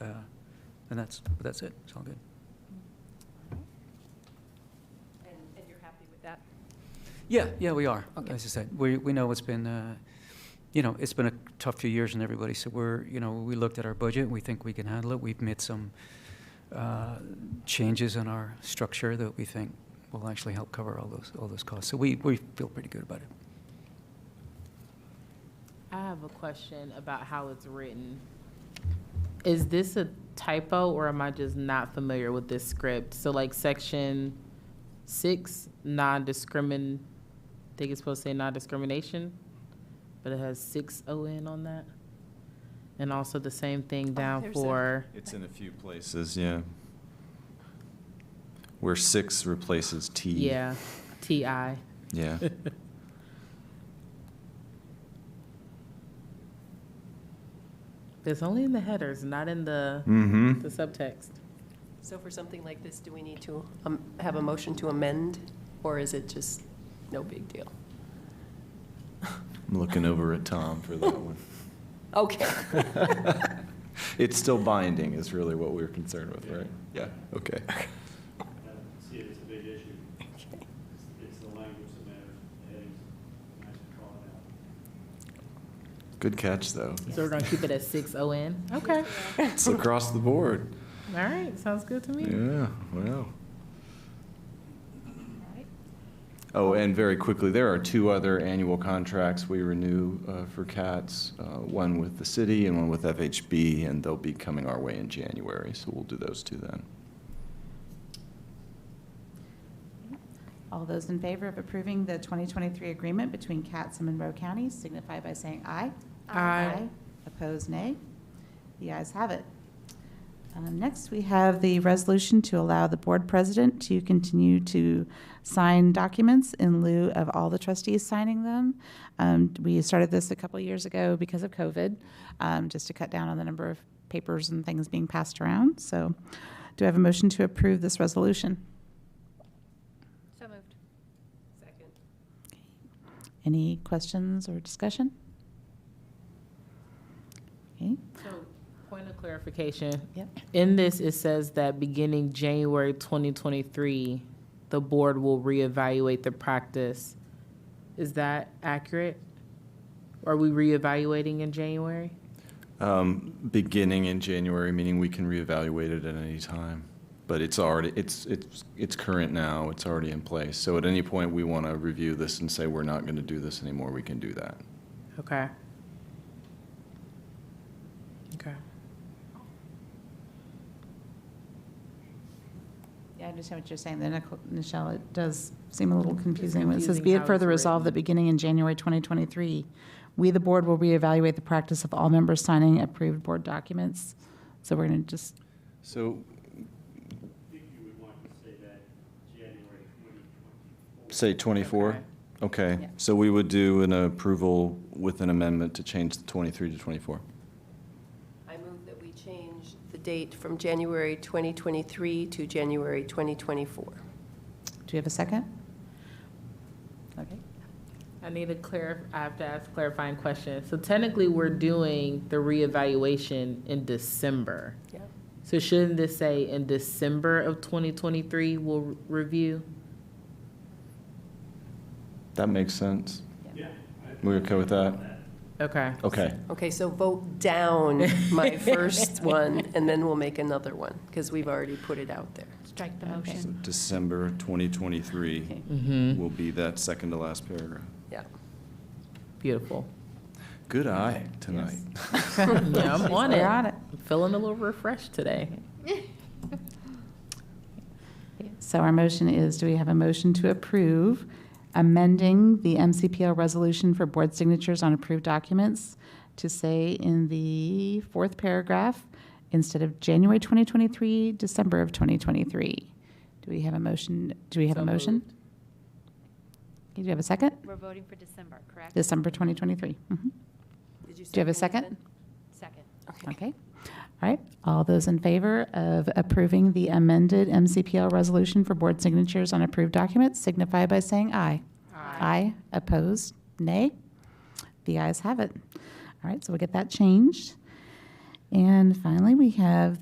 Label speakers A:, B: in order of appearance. A: uh, And that's, but that's it, it's all good.
B: And, and you're happy with that?
A: Yeah, yeah, we are.
B: Okay.
A: As I said, we, we know it's been, uh, you know, it's been a tough few years and everybody, so we're, you know, we looked at our budget, we think we can handle it. We've made some, uh, changes in our structure that we think will actually help cover all those, all those costs. So we, we feel pretty good about it.
C: I have a question about how it's written. Is this a typo or am I just not familiar with this script? So like section six, non-discrimin, I think it's supposed to say non-discrimination, but it has six O N on that. And also the same thing down
B: Oh, there's a-
C: for,
D: It's in a few places, yeah. Where six replaces T.
C: yeah, T I.
D: Yeah.
C: It's only in the headers, not in the,
D: Mm-hmm.
C: the subtext.
B: So for something like this, do we need to um, have a motion to amend, or is it just no big deal?
D: I'm looking over at Tom for that one.
B: Okay.
D: It's still binding is really what we were concerned with, right? Yeah, okay.
E: I don't see it as a big issue. It's- It's the language that matters, headings, nice to call it out.
D: Good catch, though.
C: So we're gonna keep it at six O N? Okay,
D: It's across the board.
C: all right, sounds good to me.
D: Yeah, wow.
B: Alright.
D: Oh, and very quickly, there are two other annual contracts we renew uh, for CATS, uh, one with the city and one with FHB, and they'll be coming our way in January, so we'll do those two then.
F: All those in favor of approving the 2023 agreement between Cats and Monroe counties signify by saying aye.
C: Aye. Aye.
F: Opposed, nay. The ayes have it. Um, Next, we have the resolution to allow the board president to continue to sign documents in lieu of all the trustees signing them. Um, We started this a couple years ago because of COVID, um, just to cut down on the number of papers and things being passed around. So do I have a motion to approve this resolution?
B: So moved. Second.
F: Any questions or discussion? Okay,
C: So, point of clarification.
F: Yep.
C: In this, it says that beginning January 2023, the board will reevaluate the practice. Is that accurate? Are we reevaluating in January?
D: Um, Beginning in January, meaning we can reevaluate it at any time, but it's already, it's, it's, it's current now, it's already in place. So at any point, we want to review this and say, we're not going to do this anymore, we can do that.
C: Okay. Okay.
F: yeah, I understand what you're saying, there, Nic- Nichelle, it does seem a little confusing. When It says,
C: confusing
F: "Be
C: how
F: it
C: it's
F: further resolved that
C: written.
F: beginning in January 2023, we, the board, will reevaluate the practice of all members signing approved board documents." So we're going to just,
D: So
E: I think you would want to say that January 2024.
D: Say 24? Okay, so we would do an approval with an amendment to change the 23 to 24.
B: I move that we change the date from January 2023 to January 2024.
F: do you have a second? Okay.
C: I need to clar, I have to ask clarifying questions. So technically, we're doing the reevaluation in December.
B: Yeah.
C: So shouldn't this say in December of 2023, we'll re- review?
D: That makes sense.
E: Yeah. I-
D: We okay with that?
C: Okay.
D: Okay,
B: Okay, so vote down my first one, and then we'll make another one, because we've already put it out there.
F: Strike
G: the
D: so
G: motion.
D: December 2023
F: Okay.
C: Mm-hmm.
D: will be that second to last paragraph.
B: Yeah.
C: Beautiful.
D: Good eye tonight.
C: Yeah, I'm on it.
F: We're
C: I'm
F: on it.
C: feeling a little refreshed today.
F: So our motion is, do we have a motion to approve amending the MCPL resolution for board signatures on approved documents to say in the fourth paragraph, instead of January 2023, December of 2023? Do we have a motion, do we have a
C: So
F: motion?
C: moved.
F: Okay, Do we have a second?
G: We're voting for December, correct?
F: December 2023. Mhm.
B: Did
F: Do you have a second?
B: second
G: Second.
B: it then?
F: Okay. All right. All those in favor of approving the amended MCPL resolution for board signatures on approved documents signify by saying aye. Aye. Opposed? Nay? The ayes have it. All right, so we'll get that changed. And finally, we have